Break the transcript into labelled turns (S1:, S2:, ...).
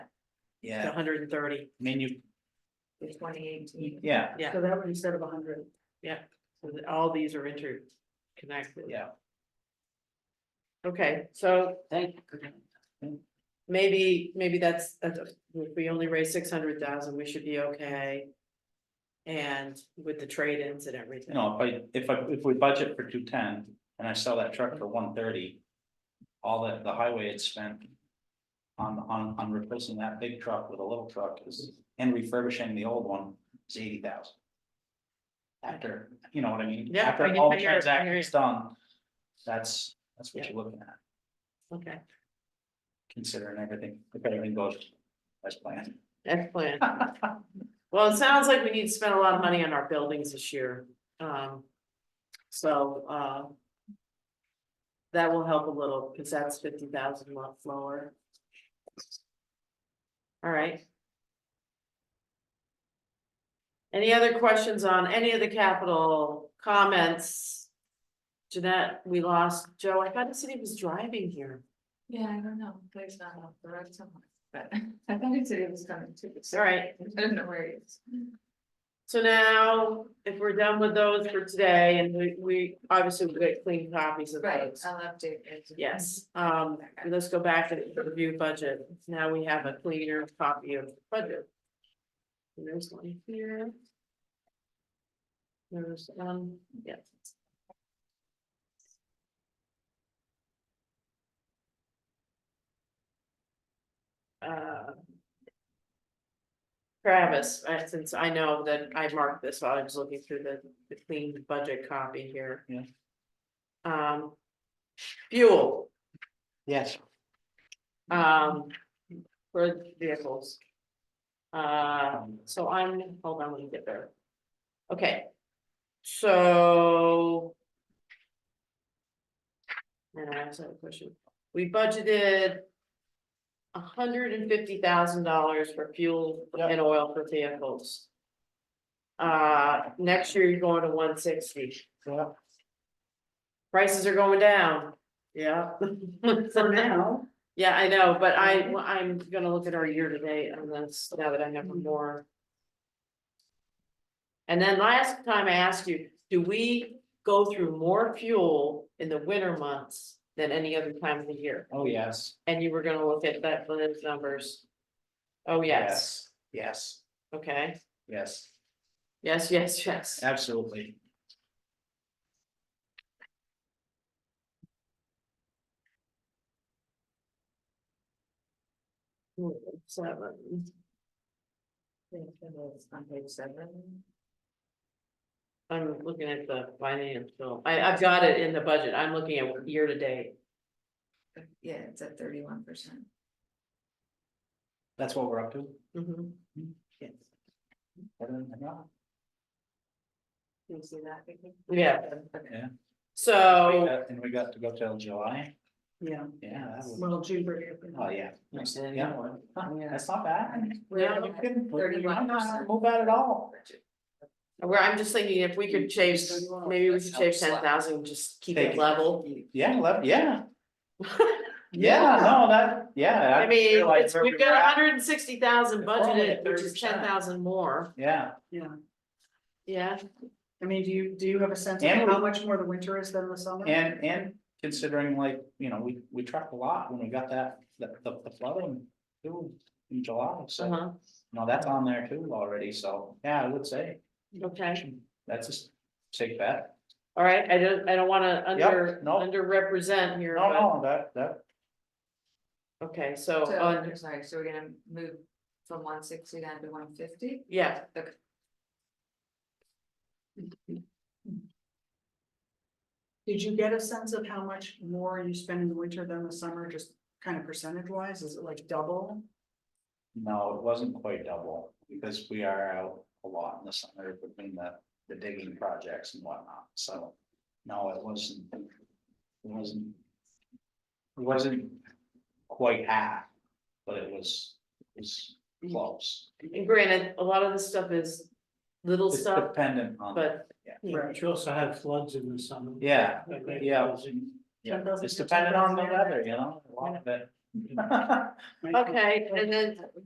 S1: yeah, I
S2: hundred and thirty,
S1: mean, you,
S3: in twenty eighteen.
S1: yeah,
S2: yeah.
S3: So that one instead of hundred.
S2: So that all these are interconnected.
S1: yeah.
S2: Okay, so thank, maybe, maybe that's, that's- if we only raise six hundred thousand, we should be okay. And with the trade-ins and
S1: You
S2: everything,
S1: know, if I, if I, if we budget for two ten and I sell that truck for one thirty. All that the highway had spent. On, on, on replacing that big truck with a little truck is, and refurbishing the old one is eighty thousand. After, you know what I mean?
S2: Yeah, I
S1: After
S2: get-
S1: all
S2: I
S1: the
S2: hear it, I hear
S1: transactions done. That's, that's what
S2: Yeah.
S1: you're looking at,
S2: okay,
S1: considering everything, if everything goes as planned.
S2: excellent. Well, it sounds like we need to spend a lot of money on our buildings this year, um, so, uh. That will help a little, cause that's fifty thousand lots lower. All right. Any other questions on any of the capital comments? Jeanette, we lost Joe, I thought the city was driving here,
S3: Yeah, I don't know, there's not a direct someone, but I thought he said it was coming too.
S2: all right.
S3: I don't know where he is.
S2: So now, if we're done with those for today, and we, we, obviously we get clean copies of
S3: Right,
S2: those.
S3: I'll update it.
S2: Yes, um, let's go back and review budget. Now we have a cleaner copy of budget. And There's one here. There's, um, yeah. Uh, Travis, uh, since I know that I marked this while I was looking through the, the clean budget copy here.
S1: Yeah.
S2: Um, fuel.
S1: Yes.
S2: Um, for vehicles. Uh, so I'm, hold on, let me get there. Okay. So. And I also have a question. We budgeted. hundred and fifty thousand dollars for fuel
S1: Yep.
S2: and oil for vehicles. Uh, next year you're going to one sixty.
S1: Yeah.
S2: Prices are going down. Yeah.
S3: For now.
S2: Yeah, I know, but I,
S3: Mhm.
S2: well, I'm gonna look at our year to date on this, now that I have
S3: Mhm.
S2: more. And then last time I asked you, do we go through more fuel in the winter months than any other time of the year?
S1: Oh, yes.
S2: And you were gonna look at that, those numbers. Oh, yes,
S1: Yes,
S2: okay,
S1: yes,
S2: yes, yes, yes,
S1: absolutely.
S2: seven,
S3: I think it was On page seven.
S2: I'm looking at the financial, I, I've got it in the budget, I'm looking at year to date.
S3: Yeah, it's at thirty-one percent.
S1: That's what we're up to.
S2: Mhm.
S1: Yes. Better than that.
S3: Can you see that? Vicky?
S2: Yeah.
S3: Okay.
S2: So.
S1: Uh, And we got to go till July,
S3: Yeah.
S1: yeah, that was,
S3: Little Jupiter.
S1: oh, yeah.
S2: Nice to
S1: Yeah, Huh, that's not bad.
S3: We're
S1: Yeah,
S3: looking
S1: we couldn't- we-
S3: Thirty-one
S1: I'm not-
S3: percent.
S1: Not bad at all.
S2: Where I'm just thinking if we could shave, maybe we should shave
S4: Helps a
S2: ten
S4: lot.
S2: thousand, just keep
S1: Take
S2: it
S1: it.
S2: level.
S1: Yeah, love, yeah, yeah, no, that, yeah.
S2: I mean,
S1: realized
S2: it's,
S1: where
S2: we've
S1: we
S2: got
S1: were at.
S2: hundred and sixty thousand
S1: If we're only
S2: budgeted,
S1: at
S2: which is
S1: 30%.
S2: ten thousand more,
S1: Yeah,
S2: yeah,
S4: I mean, do you, do you have a sense of
S1: And
S4: how
S1: we-
S4: much more the winter is than the summer?
S1: and, and considering like, you know, we, we trucked a lot when we got that, the, the the flooding too in July, so,
S2: uh-huh,
S1: no, that's on there too already, so, yeah, I would say,
S2: okay.
S1: that's a s- safe bet.
S2: All right, I don't, I don't wanna under,
S1: no.
S2: underrepresent here,
S1: No, no, that, that,
S2: but, okay,
S1: Oh,
S2: so,
S3: So,
S1: uh,
S2: on,
S3: I'm sorry, so we're gonna move from one sixty down to one fifty?
S2: yeah,
S4: Did you get a sense of how much more you spend in the winter than the summer, just kind of percentage wise? Is it like double?
S1: No, it wasn't quite double, because we are out a lot in the summer between the, the digging projects and whatnot, so. No, it wasn't. It wasn't. It wasn't quite half, but it was, it was close.
S2: and granted, a lot of this stuff is little
S1: It's
S2: stuff,
S1: dependent on.
S2: but,
S5: Yeah, but you also had floods in the summer.
S1: Yeah,
S5: Like that
S1: yeah,
S5: was in-
S1: yeah,
S4: 10,000,
S1: it's dependent on the weather, you know, a lot of it.
S2: okay, and then